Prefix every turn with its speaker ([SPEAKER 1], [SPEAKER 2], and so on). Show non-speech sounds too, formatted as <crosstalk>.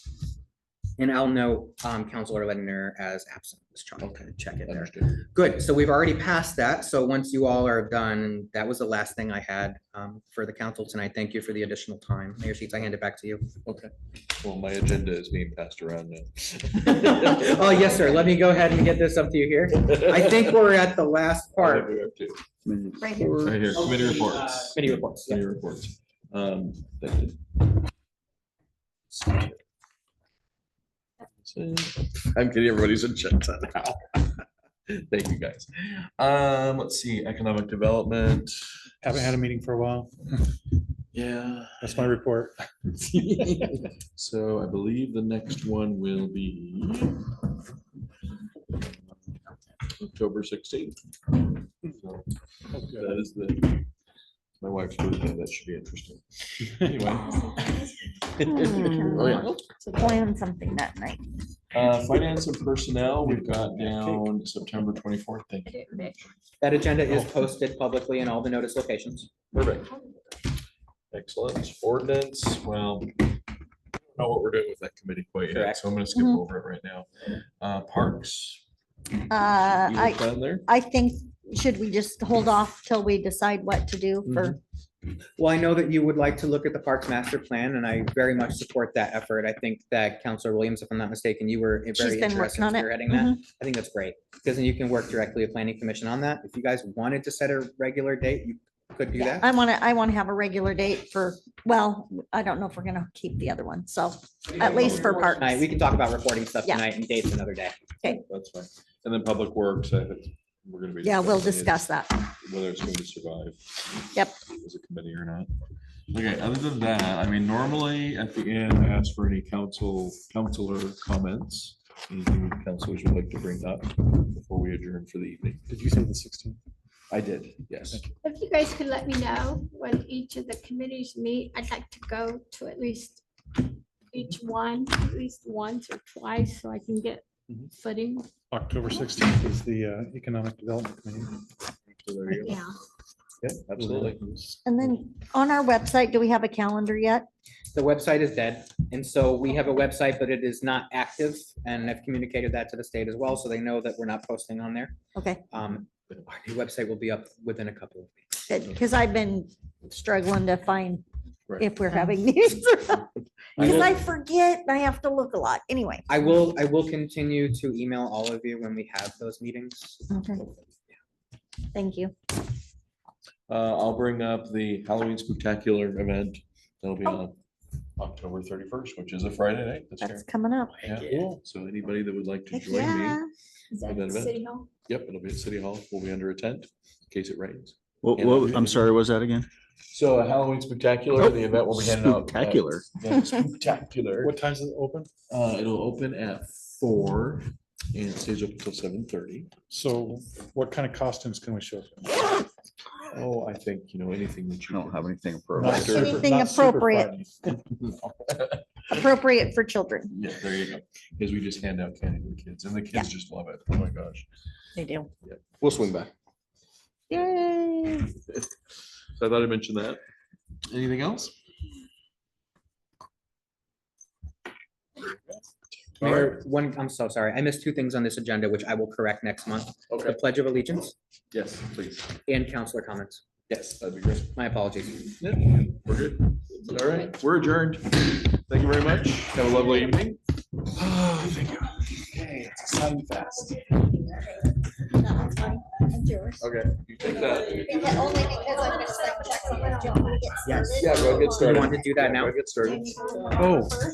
[SPEAKER 1] And I'll note, um, Counselor Ledner as absent this time.
[SPEAKER 2] Okay.
[SPEAKER 1] Check it there.
[SPEAKER 2] Understood.
[SPEAKER 1] Good, so we've already passed that, so once you all are done, that was the last thing I had um, for the council tonight. Thank you for the additional time. Mayor Sheets, I hand it back to you.
[SPEAKER 2] Well, my agenda is being passed around now.
[SPEAKER 1] Oh, yes, sir, let me go ahead and get this up to you here. I think
[SPEAKER 2] <laughs>
[SPEAKER 1] we're at the last
[SPEAKER 2] What
[SPEAKER 1] part,
[SPEAKER 2] are we up to?
[SPEAKER 3] Right here.
[SPEAKER 2] Right here, committee reports.
[SPEAKER 1] committee reports. yeah.
[SPEAKER 2] Committee reports. Um, that did- I'm getting everybody's agenda now. <laughs> Thank you, guys. Um, let's see, economic development.
[SPEAKER 4] Haven't had a meeting for a while.
[SPEAKER 2] Yeah.
[SPEAKER 4] That's my report.
[SPEAKER 2] So I believe the next one will be October sixteenth. So That is the, my wife's birthday, that should be <laughs> interesting. Anyway. <laughs> Oh, yeah.
[SPEAKER 3] So Hmm. plan something that night.
[SPEAKER 2] Uh, Finance and personnel, we've got down September twenty-fourth, thank you. very much.
[SPEAKER 1] That agenda is posted publicly in all the notice locations.
[SPEAKER 2] Perfect. Excellent. Ordinance, well, I don't know what we're doing with that committee quite yet,
[SPEAKER 1] Correct.
[SPEAKER 2] so I'm gonna skip
[SPEAKER 3] Mhm.
[SPEAKER 2] over it right now. Uh, Parks.
[SPEAKER 3] Uh,
[SPEAKER 2] you
[SPEAKER 3] I,
[SPEAKER 2] look down there?
[SPEAKER 3] I think, should we just hold off till we decide what to do for?
[SPEAKER 1] Well, I know that you would like to look at the Parks Master Plan, and I very much support that effort. I think that Counselor Williams, if I'm not mistaken, you were
[SPEAKER 3] She's
[SPEAKER 1] very
[SPEAKER 3] been
[SPEAKER 1] interested
[SPEAKER 3] working
[SPEAKER 1] in
[SPEAKER 3] on it. Mm-hmm.
[SPEAKER 1] spearheading that. I think that's great, because then you can work directly with planning commission on that. If you guys wanted to set a regular date, you could do
[SPEAKER 3] Yeah,
[SPEAKER 1] that.
[SPEAKER 3] I want to, I want to have a regular date for, well, I don't know if we're going to keep the other one, so uh, at least for parks.
[SPEAKER 1] Tonight, we can talk about reporting stuff
[SPEAKER 3] Yeah.
[SPEAKER 1] tonight and dates another day.
[SPEAKER 2] That's fine. And then Public Works, I think we're gonna be.
[SPEAKER 3] Yeah, we'll
[SPEAKER 2] discussing it,
[SPEAKER 3] discuss that.
[SPEAKER 2] Whether it's going to survive.
[SPEAKER 3] Yep.
[SPEAKER 2] As a committee or not. Okay, other than that, I mean, normally at the end, I ask for any council, counselor comments. Anything that counselors would like to bring up before we adjourn for the evening.
[SPEAKER 4] Did you say the sixteenth?
[SPEAKER 2] I did, yes.
[SPEAKER 5] If you guys could let me know when each of the committees meet, I'd like to go to at least each one, at least once or twice, so I can get
[SPEAKER 2] Mhm.
[SPEAKER 5] footing.
[SPEAKER 4] October sixteenth is the uh, Economic Development Committee.
[SPEAKER 2] So there you go.
[SPEAKER 5] Yeah,
[SPEAKER 2] Yep, absolutely.
[SPEAKER 3] And then on our website, do we have a calendar yet?
[SPEAKER 1] The website is dead, and so we have a website, but it is not active, and I've communicated that to the state as well, so they know that we're not posting on there.
[SPEAKER 3] Okay,
[SPEAKER 1] Um, Our new website will be up within a couple of weeks.
[SPEAKER 3] good, because I've been struggling to find
[SPEAKER 2] Right.
[SPEAKER 3] if we're having <laughs> these. Because I forget and I have to look a lot. Anyway.
[SPEAKER 1] I will, I will continue to email all of you when we have those meetings.
[SPEAKER 3] Okay. Thank you.
[SPEAKER 2] Uh, I'll bring up the Halloween spectacular event. That'll be on October thirty-first, which is a Friday night this year.
[SPEAKER 3] Oh. That's coming up.
[SPEAKER 2] Yeah, so anybody that would like to
[SPEAKER 3] Heck
[SPEAKER 2] join me,
[SPEAKER 3] yeah.
[SPEAKER 5] is that
[SPEAKER 2] Another bit?
[SPEAKER 5] City Hall?
[SPEAKER 2] yep, it'll be at City Hall. We'll be under a tent in case it rains.
[SPEAKER 6] What,
[SPEAKER 2] Yeah.
[SPEAKER 6] what, I'm sorry, what was that again? Oh,
[SPEAKER 2] So a Halloween spectacular, the event will be handed out. uh,
[SPEAKER 6] Spectacular.
[SPEAKER 2] <laughs> yeah, Spectacular.
[SPEAKER 4] What time's it open?
[SPEAKER 2] Uh, it'll open at four and it stays open until seven thirty.
[SPEAKER 4] So what kind of costumes can we show?
[SPEAKER 2] Oh, I think, you know, anything that
[SPEAKER 6] I
[SPEAKER 2] you.
[SPEAKER 6] don't have anything
[SPEAKER 4] Not
[SPEAKER 6] appropriate.
[SPEAKER 4] super-
[SPEAKER 3] Anything
[SPEAKER 4] not super
[SPEAKER 3] appropriate.
[SPEAKER 4] Friday.
[SPEAKER 3] Appropriate for children.
[SPEAKER 2] Yeah, there you go. Because we just hand out candy to the kids and the kids just love it. Oh, my gosh.
[SPEAKER 3] They do.
[SPEAKER 6] We'll swing back.
[SPEAKER 3] Yay.
[SPEAKER 2] So I thought I'd mention that. Anything else?
[SPEAKER 1] Mayor, one, I'm so sorry. I missed two things on this agenda, which I will correct next month. The
[SPEAKER 2] Okay,
[SPEAKER 1] Pledge of Allegiance
[SPEAKER 2] yes, please.
[SPEAKER 1] and counselor comments.
[SPEAKER 2] Yes, that'd be great.
[SPEAKER 1] My apologies.
[SPEAKER 2] Yeah, We're good. All right, we're adjourned. Thank you very much. Have a lovely evening. Thank you. Okay, it's time fast.
[SPEAKER 3] That's fine. That's yours.
[SPEAKER 2] Okay, you take that.
[SPEAKER 3] Because- Only because I'm just like checking if John gets
[SPEAKER 1] Yes.
[SPEAKER 3] started.
[SPEAKER 2] Yeah, go get
[SPEAKER 1] Do you
[SPEAKER 2] started.
[SPEAKER 1] want to do that now?
[SPEAKER 2] Get started.
[SPEAKER 4] Oh.